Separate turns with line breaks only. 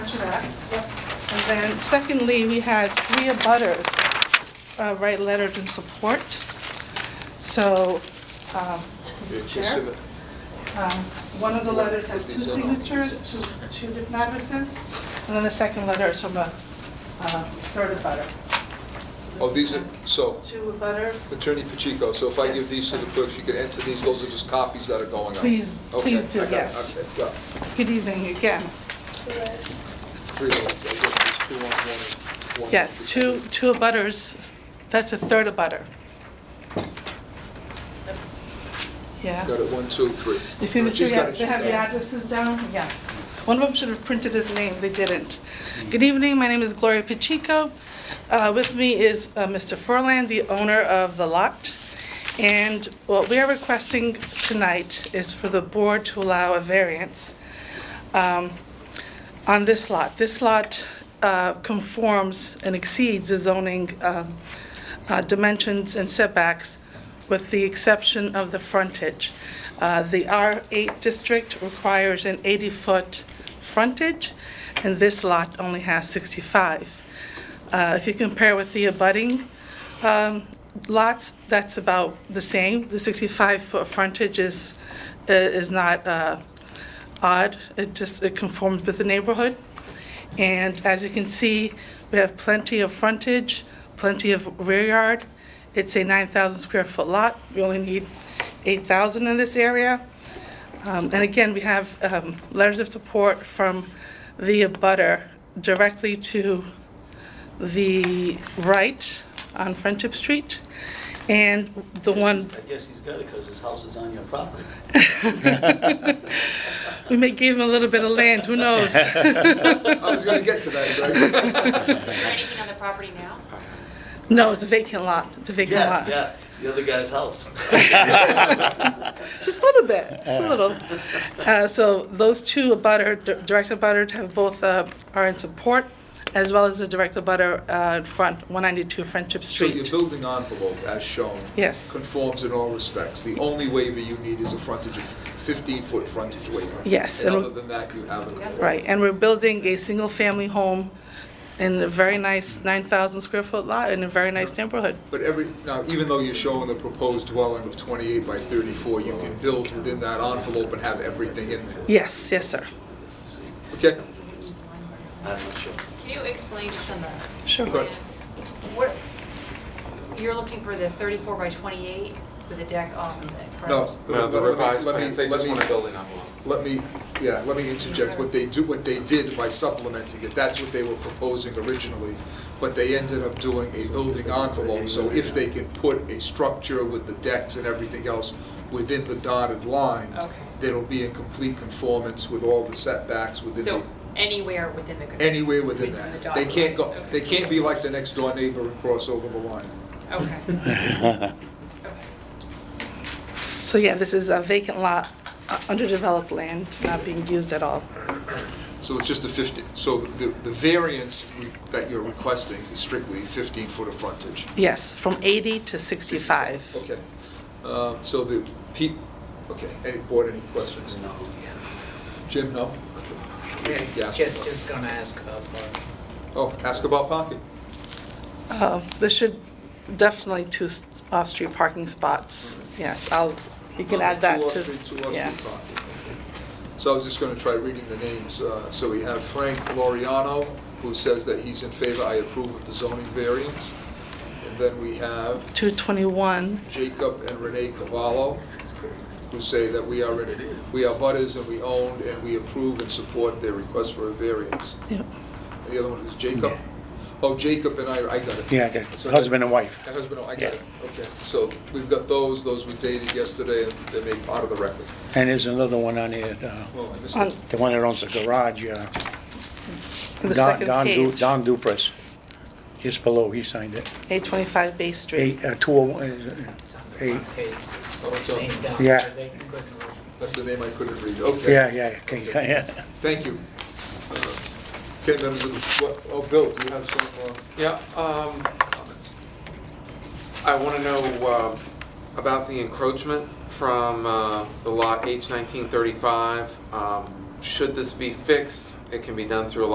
finish that. And then secondly, we had three abutters uh, write letters in support. So, um, Mr. Chair, um, one of the letters has two signatures, two two different addresses, and then the second letter is from a uh, third abutter.
Oh, these are, so,
Two abutters.
Attorney Pacheco, so if I give these to the clerk, she can enter these, those are just copies that are going out?
Please-
Okay,
please do,
I got it.
yes.
Okay, got it.
Good evening again.
Three minutes, I guess there's two on one, one.
Yes, two, two abutters, that's a third abutter. Yeah.
Got it, one, two, three.
You see the two,
She's got
yeah,
it,
they have
she's
the
got
addresses
it.
down? Yes. One of them should have printed his name, they didn't. Good evening, my name is Gloria Pacheco. Uh, With me is uh, Mr. Furland, the owner of the lot. And what we are requesting tonight is for the board to allow a variance um, on this lot. This lot uh, conforms and exceeds the zoning um, uh, dimensions and setbacks with the exception of the frontage. Uh, The R8 district requires an 80-foot frontage, and this lot only has 65. Uh, If you compare with the abutting um, lots, that's about the same. The 65-foot frontage is is not uh, odd. It just, it conforms with the neighborhood. And as you can see, we have plenty of frontage, plenty of rear yard. It's a 9,000 square foot lot. We only need 8,000 in this area. Um, And again, we have um, letters of support from the abutter directly to the right on Friendship Street. And the
Guess
one,
he's- I guess he's got it because his house is on your property.
we may give him a little bit of land, who knows?
I was gonna get to that, Greg.
Is there anything on the property now?
No, it's a vacant lot. It's a vacant
Yeah,
lot.
yeah, the other guy's house.
Just a little bit, just a little. Uh, So those two abutter, di- direct abutter have both, uh, are in support, as well as the direct abutter uh, in front, 192 Friendship
So your
Street.
building envelope, as shown.
Yes.
Conforms in all respects. The only waiver you need is a frontage of fifteen-foot frontage waiver.
Yes,
And
and-
other than that, you have a.
Right, and we're building a single-family home in a very nice 9,000 square foot lot in a very nice neighborhood.
But every, now, even though you're showing the proposed dwelling of twenty-eight by thirty-four, you can build within that envelope and have everything in there,
Yes, yes, sir.
okay?
I'm not sure.
Can you explain just on the
Sure.
Go ahead.
what, you're looking for the 34 by 28 with a deck off of it, correct?
No.
No, the
Let me-
revised
let me-
plans, they
let
just
me-
want a building envelope.
Let me, yeah, let me interject, what they do, what they did by supplementing it, that's what they were proposing originally, but they ended up doing a building envelope, so if they can put a structure with the decks and everything else within the dotted lines,
Okay.
it'll be in complete conformance with all the setbacks within
So
the,
anywhere within the.
anywhere within
within
that.
the
They
dotted
can't go,
lines, okay.
they can't be like the next door neighbor and cross over the line.
Okay. Okay.
So yeah, this is a vacant lot, uh, underdeveloped land, not being used at all.
So it's just a 50, so the, the variance we- that you're requesting is strictly 15-foot of frontage.
Yes, from 80 to 65.
Okay, Um, so the, pe- okay, any board, any questions?
No,
Jim, no?
yeah.
Yes.
Just, just gonna ask about parking.
Oh, ask about parking.
Uh, There should definitely two s- off-street parking spots. Yes, I'll, you can add that to.
Two off-street, two off-street
yeah.
parking. So I was just gonna try reading the names. Uh, So we have Frank Loriano, who says that he's in favor, I approve of the zoning variance. And then we have
221,
Jacob and Renee Cavallo, who say that we are, in- we are butters and we own and we approve and support their request for a variance.
yep.
And the other one was Jacob? Oh, Jacob and I, I got it.
Yeah, okay.
So that-
husband and wife.
My husband, oh, I got it, okay. So we've got those, those we dated yesterday, and they made part of the record.
And there's another one on here, uh,
Well, I missed
On
it.
the one that owns the garage, uh,
the
Don-
second
Don Du-
page,
Don Duprez, just below, he signed it.
825 Bay Street.
Eight, uh, 201, uh, eight,
Hey,
Oh, it's on.
name down
Yeah.
there, they couldn't read.
That's the name I couldn't read, okay.
yeah, yeah, okay, yeah.
Thank you. Uh, Okay, members of the, what- oh, Bill, do you have some uh,
Yeah, um,
comments?
I want to know uh, about the encroachment from uh, the lot H1935. Um, Should this be fixed? It can be done through a